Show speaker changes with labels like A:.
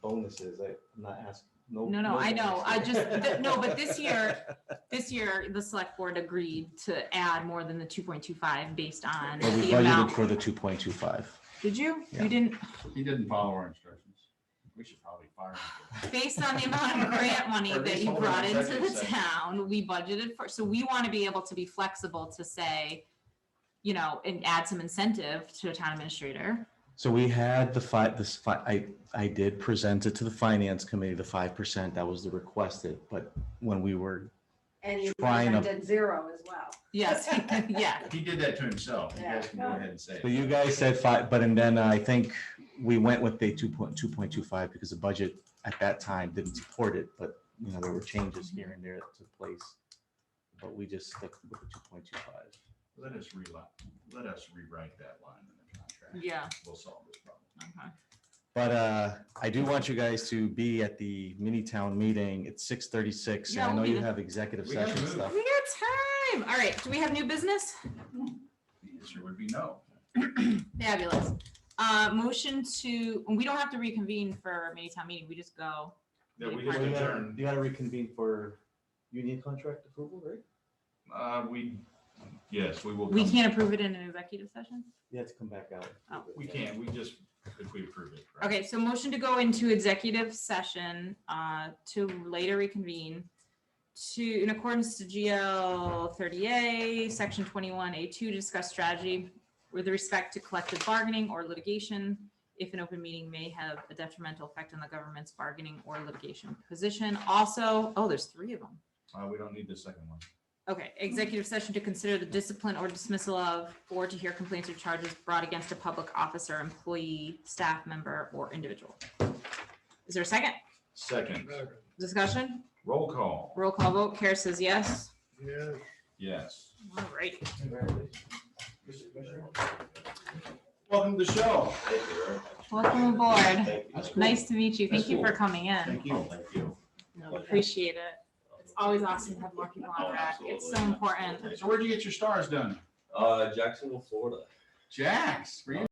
A: bonuses, I- I'm not asking, no.
B: No, no, I know. I
A: bonuses.
B: just, th- no, but this year, this year, the select board agreed to add more than the two point two five based on
C: But we
B: the
C: budgeted
B: amount.
C: for the two point two five.
B: Did you?
C: Yeah.
B: You didn't,
D: He didn't follow our instructions. We should probably fire him.
B: based on the amount of grant money
D: Or at
B: that
D: least
B: you
D: hold an
B: brought into
D: executive
B: the
D: session.
B: town, we budgeted for, so we want to be able to be flexible to say, you know, and add some incentive to a town administrator.
C: So we had the five, this, fi- I, I did present it to the finance committee, the five percent, that was the requested, but when we were,
E: And you
C: Trying to-
E: presented zero as well.
B: Yes, yeah.
D: He did that to himself. You guys can go ahead and say
C: but
D: it.
C: you guys said five, but and then I think we went with the two point, two point two five because the budget at that time didn't support it, but you know, there were changes here and there that took place. But we just stuck with the two point two five.
D: Let us rewrite, let us rewrite that line in the contract.
B: Yeah.
D: We'll solve this problem.
B: Okay.
C: But uh, I do want you guys to be at the mini town meeting. It's six thirty-six.
B: Yeah,
C: and I know
B: we'll be
C: you
B: there.
C: have executive
D: We gotta
C: session
D: move.
C: stuff.
B: We got time. All right, do we have new business?
D: The answer would be no.
B: Fabulous. Uh, motion to, and we don't have to reconvene for mini town meeting, we just go.
D: That we
B: Well,
D: just
B: you
A: You gotta-
D: adjourned.
A: you gotta reconvene for union contract approval, right?
D: Uh, we, yes, we will.
B: We
D: come-
B: can't approve it in an executive session?
A: You have to come back out.
B: Oh.
D: We can't. We just, if we approve it. right?
B: Okay, so motion to go into executive session, uh, to later reconvene to, in accordance to GL thirty A, section twenty-one A two, discuss strategy with respect to collective bargaining or litigation, if an open meeting may have a detrimental effect on the government's bargaining or litigation position. Also, oh, there's three of them.
D: Uh, we don't need the second one.
B: Okay, executive session to consider the discipline or dismissal of, or to hear complaints or charges brought against a public officer, employee, staff member, or individual. Is there a second
D: Second,
B: discussion?
D: roll call.
B: Roll call vote. Kara says yes.
D: Yes.
B: All right.
D: Welcome to the show.
B: Welcome aboard.
D: That's cool.
B: Nice to meet you. Thank you for coming in.
D: Thank you. Oh, Thank you.
B: Appreciate it. It's always awesome to have more people on rack. It's so important.
D: So where'd you get your stars done?
F: Uh, Jacksonville, Florida.
D: Jax, for you.